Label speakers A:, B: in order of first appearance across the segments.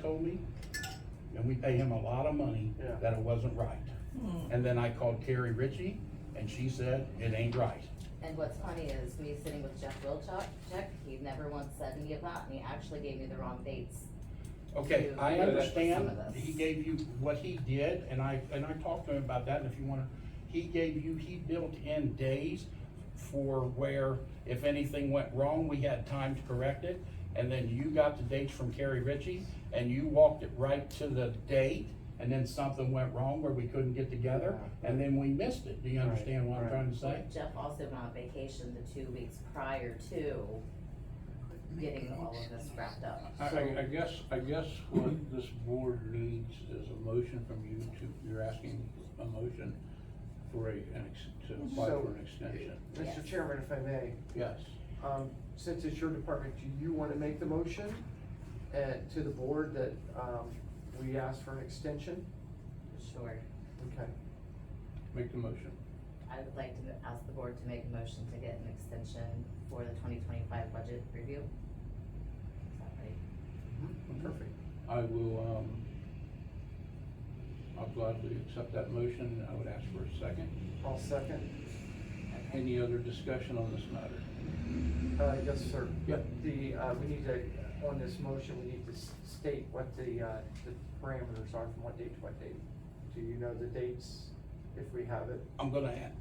A: told me, and we pay him a lot of money,
B: Yeah.
A: that it wasn't right. And then I called Carrie Ritchie, and she said, it ain't right.
C: And what's funny is me sitting with Jeff Wilczek, Jack, he never once said any of that, and he actually gave me the wrong dates.
A: Okay,
C: to
A: I
C: look at
A: understand,
C: some of this.
A: he gave you what he did, and I, and I talked to him about that, and if you wanna, he gave you, he built in days for where, if anything went wrong, we had time to correct it, and then you got the dates from Carrie Ritchie, and you walked it right to the date, and then something went wrong where we couldn't get together, and then we missed it, do you
B: Right,
A: understand what I'm
B: right.
A: trying to say?
C: Jeff also went on vacation the two weeks prior to getting all of this wrapped up.
D: I, I I guess, I guess what this board needs is a motion from you to, you're asking a motion for a, an ex, to apply
B: So-
D: for an extension.
C: Yes.
B: Mr. Chairman, if I may,
D: Yes,
B: um, since it's your department, do you wanna make the motion? Uh, to the board that, um, we ask for an extension?
C: Sure,
B: Okay,
D: make the motion.
C: I would like to ask the board to make a motion to get an extension for the twenty twenty-five budget review. Is that right?
D: Mm-hmm.
B: perfect.
D: I will, um, I'll gladly accept that motion. I would ask for a second.
B: I'll second.
C: Okay.
D: Any other discussion on this matter?
B: Uh, yes, sir.
D: Yep.
B: The, uh, we need to, on this motion, we need to s- state what the, uh, the parameters are from what date to what date. Do you know the dates, if we have it?
A: I'm gonna add,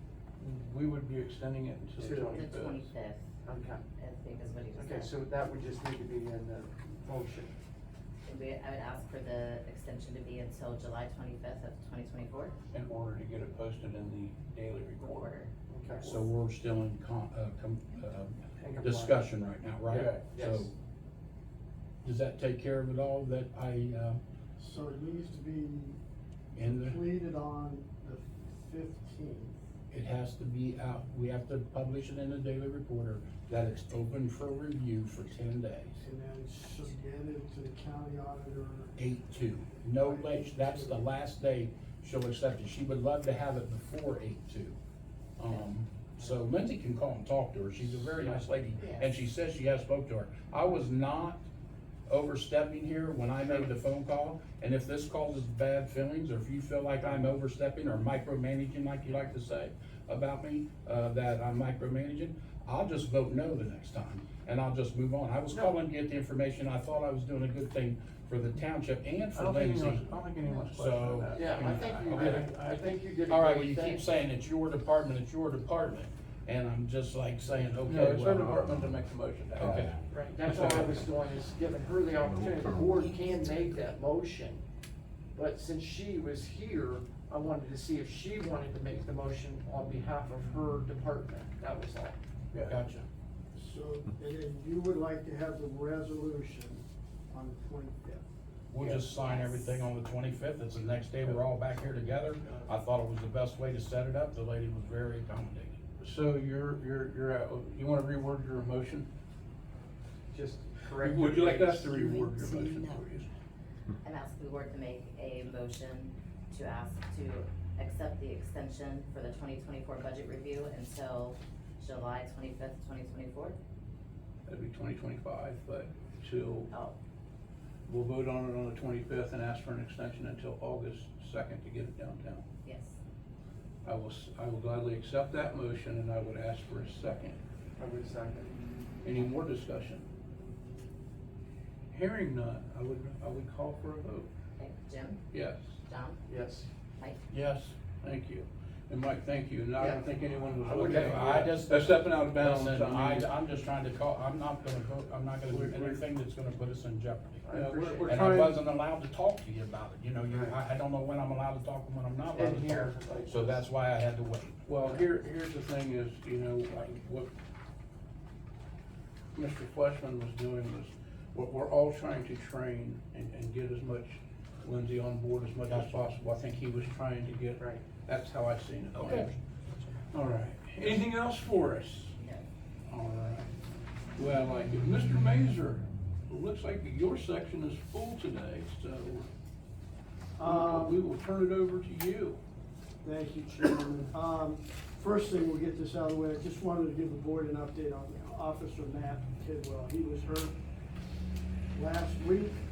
D: We would be extending it until the
B: To-
C: The
D: twenty-fifth.
C: twenty-fifth,
B: Okay,
C: I think is what he just said.
B: okay, so that would just need to be in the motion.
C: We, I would ask for the extension to be until July twenty-fifth of twenty twenty-four.
D: In order to get it posted in the daily recorder.
C: Order.
B: Okay.
A: so we're still in con, uh, com, uh,
B: And comply.
A: discussion right now, right?
D: Yeah,
B: yes.
A: So, Does that take care of it all that I, uh,
E: So it needs to be
A: in the,
E: completed on the fifteenth.
A: it has to be out, we have to publish it in the Daily Reporter that it's open for review for ten days.
E: And then submitted to the county auditor.
A: Eight two, no late, that's the last day she'll accept it. She would love to have it before eight two. Um, so Lindsay can call and talk to her. She's a very nice lady and she says she has spoke to her. I was not overstepping here when I made the phone call. And if this causes bad feelings, or if you feel like I'm overstepping or micromanaging, like you like to say about me, uh, that I'm micromanaging, I'll just vote no the next time and I'll just move on. I was calling to get the information. I thought I was doing a good thing for the township and
D: I
A: for
D: don't think
A: Lindsay.
D: anyone's, I don't think anyone's questioning
A: So-
D: that.
B: Yeah, I think you
D: Okay.
B: did, I think you did. a
A: uh, All right,
B: great
A: well, you
B: thing.
A: keep saying it's your department, it's your department, and I'm just like saying, okay,
D: No, it's her
A: well.
D: department to make the motion.
A: Okay.
B: Right, that's all I was doing, is giving her the opportunity, the board can make that motion. But since she was here, I wanted to see if she wanted to make the motion on behalf of her department, that was all.
D: Yeah.
A: Gotcha.
E: So, and then you would like to have the resolution on the twenty-fifth.
A: We'll just sign everything on the twenty-fifth, it's the next day, we're all back here together. I thought it was the best way to set it up, the lady was very accommodating.
D: So you're, you're, you're, at- you wanna reword your motion?
B: Just correct.
D: Would you like us to
C: re-
D: reword your motion
C: No.
D: for you?
C: I'm asking the board to make a motion to ask to accept the extension for the twenty twenty-four budget review until July twenty-fifth, twenty twenty-four.
D: That'd be twenty twenty-five, but till,
C: Oh,
D: we'll vote on it on the twenty-fifth and ask for an extension until August second to get it downtown.
C: yes.
D: I will, s- I will gladly accept that motion and I would ask for a second.
B: I would second.
D: Any more discussion? Hearing none, I would, I would call for a vote.
C: Okay, Jim,
D: Yes,
C: John,
B: Yes,
C: Mike,
A: Yes,
D: thank you. And Mike, thank you. And I
B: Yeah.
D: don't think anyone was.
A: I would have- I just-
D: They're stepping out of bounds.
A: listen,
D: I
A: I,
D: mean-
A: I'm just trying to call, I'm not gonna vote, I'm not gonna do anything that's gonna put us in jeopardy.
B: I
D: Yeah, we're-
B: appreciate
D: we're
B: it.
A: And I wasn't allowed to talk to you about it, you know, you,
B: Right.
A: I, I don't know when I'm allowed to talk and when I'm not allowed
B: In
A: to
B: here,
A: talk.
B: like-
A: So that's why I had to wait.
D: Well, here, here's the thing is, you know, like, what Mr. Fleshman was doing was, we're, we're all trying to train and, and get as much Lindsay on board as much as
A: Gotcha.
D: possible. I think he was trying to get.
B: Right.
D: That's how I seen it.
A: Okay.
D: All right. Anything else for us?
C: no.
D: All right. Well, like, if Mr. Mazer, it looks like your section is full today, so we
E: Um,
D: will turn it over to you.
E: thank you, Chairman. Um, first thing, we'll get this out of the way. I just wanted to give the board an update on Officer Matt Tidwell. He was hurt last week. Um,